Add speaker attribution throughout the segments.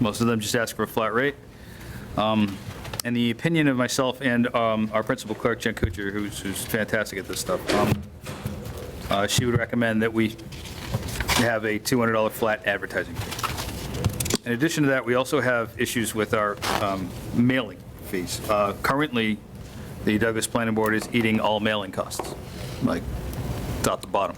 Speaker 1: Most of them just ask for a flat rate. Um, And the opinion of myself and um, our principal clerk, Jen Kuchar, who's, who's fantastic at this stuff, um, uh, she would recommend that we have a $200 flat advertising fee. In addition to that, we also have issues with our um, mailing fees. Uh, Currently, the Douglas Planning Board is eating all mailing costs, like, it's out the bottom.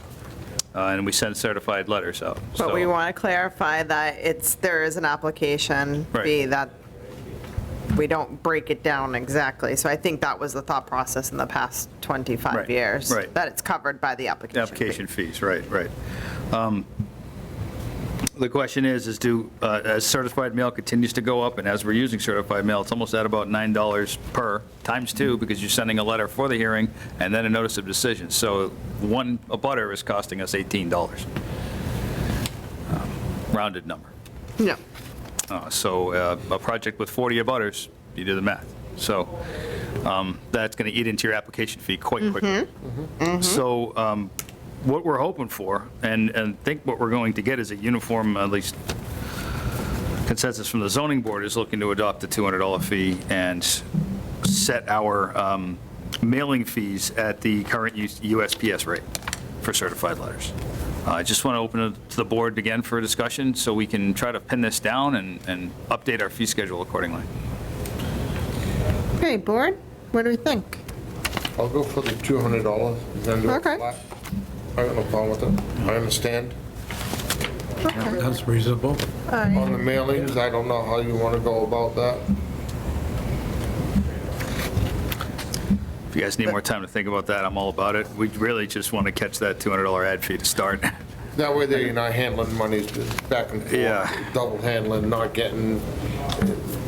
Speaker 1: Uh, And we send certified letters out.
Speaker 2: But we
Speaker 1: so-
Speaker 2: want to clarify that it's, there is an application fee
Speaker 1: Right.
Speaker 2: that we don't break it down exactly. So I think that was the thought process in the past
Speaker 1: Right,
Speaker 2: 25 years.
Speaker 1: right.
Speaker 2: That it's covered by the application. fee.
Speaker 1: Application fees, right, right. Um, The question is, is do, uh, as certified mail continues to go up, and as we're using certified mail, it's almost at about $9 per, times two, because you're sending a letter for the hearing and then a notice of decision. So one, a butter is costing us $18. Um, Rounded number.
Speaker 2: No.
Speaker 1: Uh, So uh, a project with 40 abutters, you do the math. So um, that's going to eat into your application fee quite quickly. So um, what we're hoping for, and, and think what we're going to get is a uniform, at least consensus from the zoning board is looking to adopt the $200 fee and set our um, mailing fees at the current U- USPS rate for certified letters. Uh, I just want to open it to the board again for a discussion so we can try to pin this down and, and update our fee schedule accordingly.
Speaker 2: Okay, board, what do we think?
Speaker 3: I'll go for the two hundred dollars, then do it
Speaker 2: Okay.
Speaker 3: flat. I got no problem with it. I understand.
Speaker 4: That's reasonable.
Speaker 3: On the mailings, I don't know how you wanna go about that.
Speaker 1: If you guys need more time to think about that, I'm all about it. We really just want to catch that $200 ad fee to start.
Speaker 3: That way there, you're not handling monies back and
Speaker 1: Yeah.
Speaker 3: forth, double handling, not getting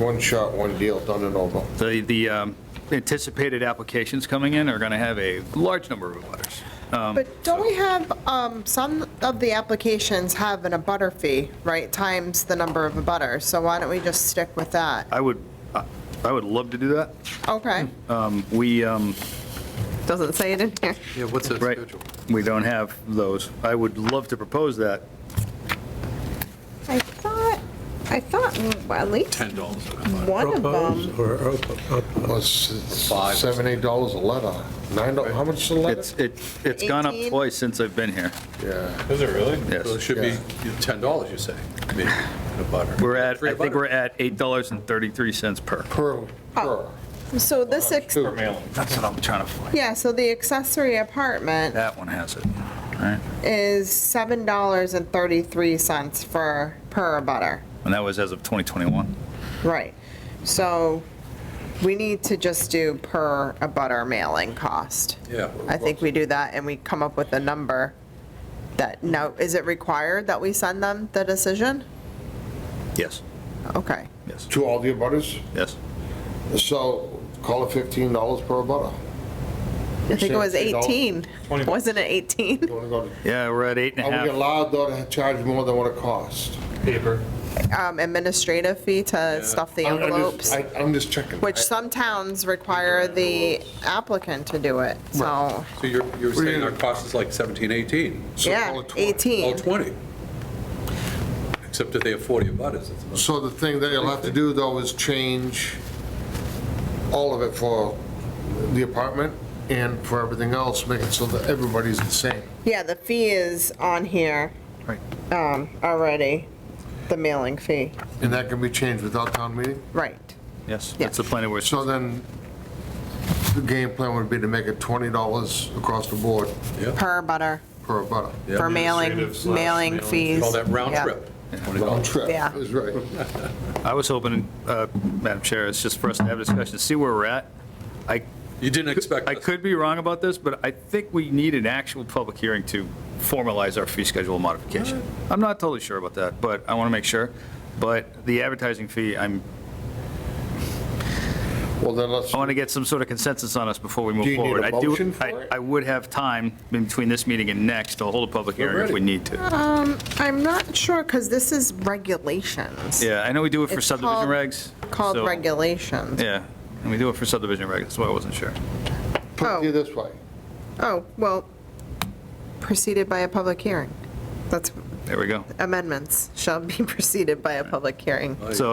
Speaker 3: one shot, one deal, done and over.
Speaker 1: The, the um, anticipated applications coming in are going to have a large number of letters.
Speaker 2: But don't we have, um, some of the applications have an abutter fee, right, times the number of abutters? So why don't we just stick with that?
Speaker 1: I would, I I would love to do that.
Speaker 2: Okay,
Speaker 1: Um, We, um,
Speaker 2: doesn't say it in here.
Speaker 4: Yeah, what's that
Speaker 1: right,
Speaker 4: schedule?
Speaker 1: we don't have those. I would love to propose that.
Speaker 5: I thought, I thought at least
Speaker 4: Ten dollars.
Speaker 5: one of them,
Speaker 4: Propose or op- op-
Speaker 3: Well, s- s- seven, eight dollars a letter. Nine, do- how much is a
Speaker 1: It's,
Speaker 3: letter?
Speaker 1: it- it's gone up
Speaker 2: 18?
Speaker 1: twice since I've been here.
Speaker 3: Yeah,
Speaker 4: Is it really?
Speaker 1: Yes.
Speaker 4: So it should be ten dollars, you say, maybe, in a butter.
Speaker 1: We're at,
Speaker 4: Free
Speaker 1: I think
Speaker 4: butter.
Speaker 1: we're at $8.33 per.
Speaker 3: per, per.
Speaker 2: So this, ex-
Speaker 3: Two.
Speaker 1: That's what I'm trying to find.
Speaker 2: yeah, so the accessory apartment
Speaker 1: That one has it. All right.
Speaker 2: is $7.33 for, per butter.
Speaker 1: And that was as of 2021.
Speaker 2: Right. So we need to just do per a butter mailing cost.
Speaker 4: Yeah.
Speaker 2: I think we do that and we come up with a number that, now, is it required that we send them the decision?
Speaker 1: Yes,
Speaker 2: Okay.
Speaker 1: yes,
Speaker 3: To all the abutters,
Speaker 1: yes.
Speaker 3: so call it fifteen dollars per abutter.
Speaker 2: I think it was
Speaker 3: Say $8.
Speaker 2: 18. Wasn't it 18?
Speaker 3: You wanna go to-
Speaker 1: Yeah, we're at eight and a
Speaker 3: Are we
Speaker 1: half.
Speaker 3: allowed though to charge more than what it costs?
Speaker 2: Um, Administrative fee to stuff the
Speaker 3: I'm- I'm
Speaker 2: envelopes,
Speaker 3: just- I- I'm just checking.
Speaker 2: which
Speaker 3: I-
Speaker 2: some towns require the applicant to do it, so,
Speaker 4: So you're, you're saying our cost is like seventeen, eighteen,
Speaker 3: so call
Speaker 2: yeah,
Speaker 3: it 20.
Speaker 4: all
Speaker 2: 18.
Speaker 4: twenty? Except that they have forty butters. it's about-
Speaker 3: So the thing that you'll have to do though is change all of it for the apartment and for everything else, make it so that everybody's the same.
Speaker 2: Yeah, the fee is on here
Speaker 1: Right.
Speaker 2: um, already, the mailing fee,
Speaker 3: And that can be changed without town meeting.
Speaker 2: right.
Speaker 1: Yes,
Speaker 2: Yeah.
Speaker 1: that's the planning board.
Speaker 3: So then the game plan would be to make it $20 across the board
Speaker 4: Yeah,
Speaker 2: Per butter,
Speaker 3: per abutter.
Speaker 2: for mailing, mailing fees.
Speaker 4: all that round
Speaker 2: Yeah.
Speaker 4: trip.
Speaker 3: Round trip,
Speaker 2: Yeah.
Speaker 3: is right.
Speaker 1: I was hoping, uh, Madam Chair, it's just for us to have a discussion, see where we're at. I,
Speaker 4: You didn't expect
Speaker 1: I
Speaker 4: us.
Speaker 1: could be wrong about this, but I think we need an actual public hearing to formalize our fee schedule modification. I'm not totally sure about that, but I want to make sure. But the advertising fee, I'm,
Speaker 3: Well, then let's,
Speaker 1: I want to get some sort of consensus on us before we
Speaker 3: Do
Speaker 1: move
Speaker 3: you need a
Speaker 1: forward. I
Speaker 3: motion for
Speaker 1: I-
Speaker 3: it?
Speaker 1: I would have time in between this meeting and next to hold a public
Speaker 4: We're
Speaker 1: hearing if
Speaker 4: ready.
Speaker 1: we need to.
Speaker 2: Um, I'm not sure, because this is regulations,
Speaker 1: Yeah, I know we do it for
Speaker 2: It's
Speaker 1: subdivision
Speaker 2: called-
Speaker 1: regs.
Speaker 2: called
Speaker 1: so-
Speaker 2: regulations.
Speaker 1: Yeah, and we do it for subdivision regs, that's why I wasn't sure.
Speaker 3: put it this way.
Speaker 2: Oh, well, preceded by a public hearing. That's
Speaker 1: There we go.
Speaker 2: amendments shall be preceded by a public hearing.
Speaker 3: Oh,
Speaker 4: Aye.